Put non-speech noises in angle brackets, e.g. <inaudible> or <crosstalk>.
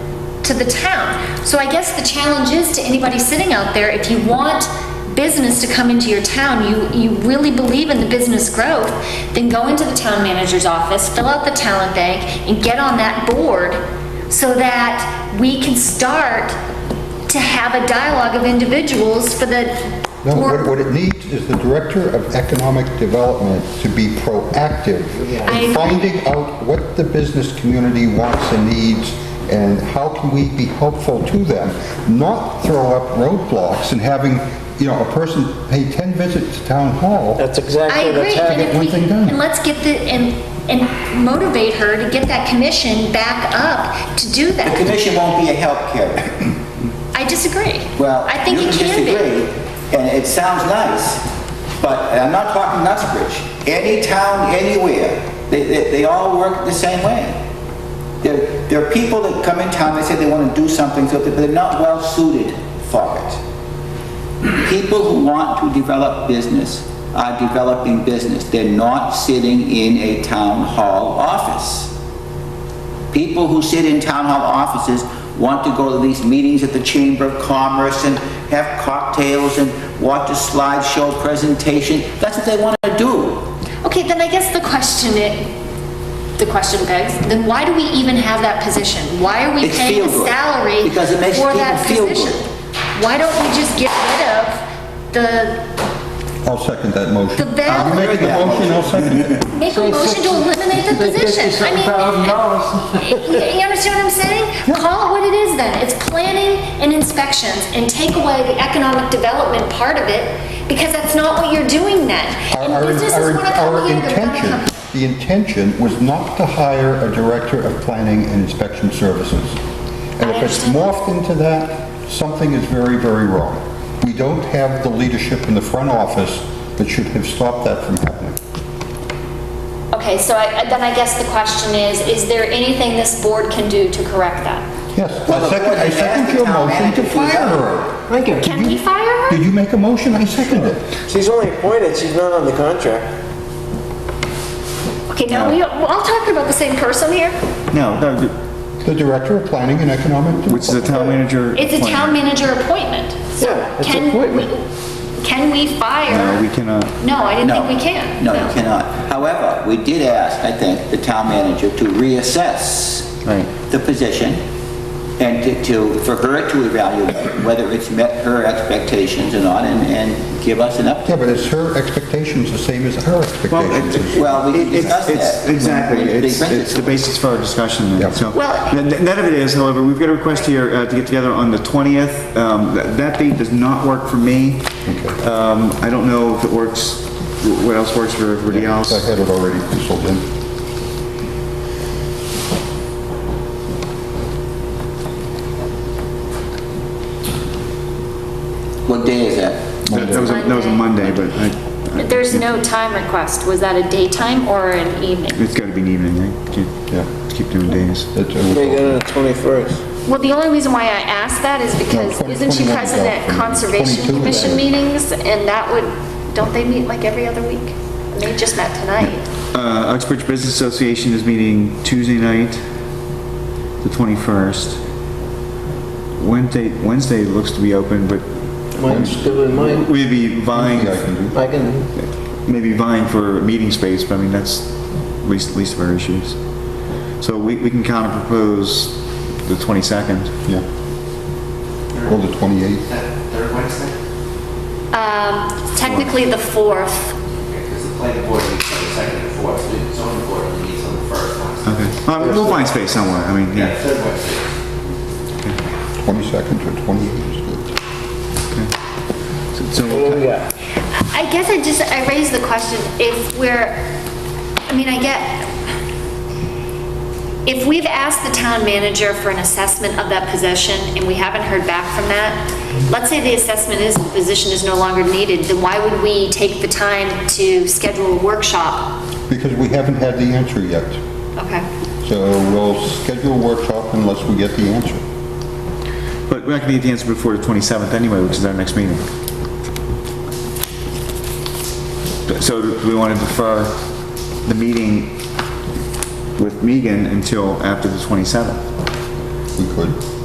to the town. So I guess the challenge is to anybody sitting out there, if you want business to come into your town, you, you really believe in the business growth, then go into the town manager's office, fill out the talent bank, and get on that board so that we can start to have a dialogue of individuals for the. No, what what it needs is the Director of Economic Development to be proactive I agree. in finding out what the business community wants and needs, and how can we be helpful to them, not throw up roadblocks and having, you know, a person pay 10 visits to Town Hall. That's I exactly, agree, that's and happening. if one we, thing done. and let's get the, and, and motivate her to get that commission back up to do The that. commission won't be a help carrier. I disagree. <laughs> Well, I you think can it can be. disagree, and it sounds nice, but and I'm not talking Nutsbridge. Any town, anywhere, they, they, they all work the same way. There, there are people that come in town, they say they want to do something, so they're not well suited for it. People who want to develop business are developing business. They're not sitting in a town hall office. People who sit in town hall offices want to go to these meetings at the Chamber of Commerce and have cocktails and watch a slideshow presentation. That's what they want to do. Okay, then I guess the question it, the question begs, then why do we even have that position? Why are we It's paying a feel good, salary because it makes for people that feel position? good. Why don't we just get rid of the, I'll second that motion. The val- Are you making the motion? I'll second it. make a motion to eliminate the position? I mean, You you understand what I'm <laughs> saying? Call it what it is then. It's planning and inspections and take away the economic development part of it because that's not what you're doing then. Our- And our- businesses our- want to come here, they're gonna Our come. intention, the intention was not to hire a Director of Planning and Inspection Services. And if it's understand. morphed into that, something is very, very wrong. We don't have the leadership in the front office that should have stopped that from happening. Okay, so I, then I guess the question is, is there anything this board can do to correct that? Yes, Well, I the second, board I has asked second the your town motion to manager to do fire that. her. Thank you. Can we fire her? Did you make a motion? I second it. She's only appointed, she's not on the contract. Okay, now we, we're all talking about the same person here? No, no, th- The Director of Planning and Economic Development. which is the town manager. It's a town appointment. manager appointment. So Yeah, it's can appointment. we- Can we fire? No, Uh, we cannot. No, I didn't No. think we can. No, you cannot. However, we did ask, I think, the town manager to reassess Right. the position and to- to, for her to evaluate whether it's met her expectations or not and, and give us an Yeah, update. but it's her expectations the same as our expectations? Well, we It- it's- discussed it's- that. Exactly, When we- they it's, rented it's the it. basis for our discussion, Yeah. then, so. Well- The- the None of it is, however, we've got a request here uh, to get together on the 20th. Um, That that date does not work for me. Um, I don't know if it works, what else works for everybody else. I had it already penciled in. What day is that? That that was, a- that was a Monday, but I- But There's no time request. Was that a daytime or an evening? it's got to be an evening, right? Can't- Yeah. Keep doing days. It- it was- They got on the 21st. Well, the only reason why I asked that is because No, twen- isn't she 21 present at though. Conservation 22 Commission then. meetings? And that would, don't they meet like every other week? They just met tonight. Uh, Uxbridge Business Association is meeting Tuesday night, the 21st. Wednesday, Wednesday looks to be open, but Mine's good with mine. we'd be vying, Yeah, I can do. I can, maybe vying for meeting space, but I mean, that's least, least of our issues. So we, we can counter propose the 22nd. Yeah. Well, the 28th. Third Wednesday? Um, technically the fourth. Because the planning board meets on the second and fourth, so the zoning board meets on the first Wednesday. Okay. Uh, We'll find space somewhere, I mean, Yeah, yeah. third Wednesday. 22nd or 28th. So- so what we'll do we got? I guess I just, I raised the question, if we're, I mean, I get, if we've asked the town manager for an assessment of that position and we haven't heard back from that, let's say the assessment is, the position is no longer needed, then why would we take the time to schedule a workshop? Because we haven't had the answer yet. Okay. So we'll schedule a workshop unless we get the answer. But we're not gonna get the answer before the 27th anyway, which is our next meeting. So do we want to defer the meeting with Megan until after the 27th? We could.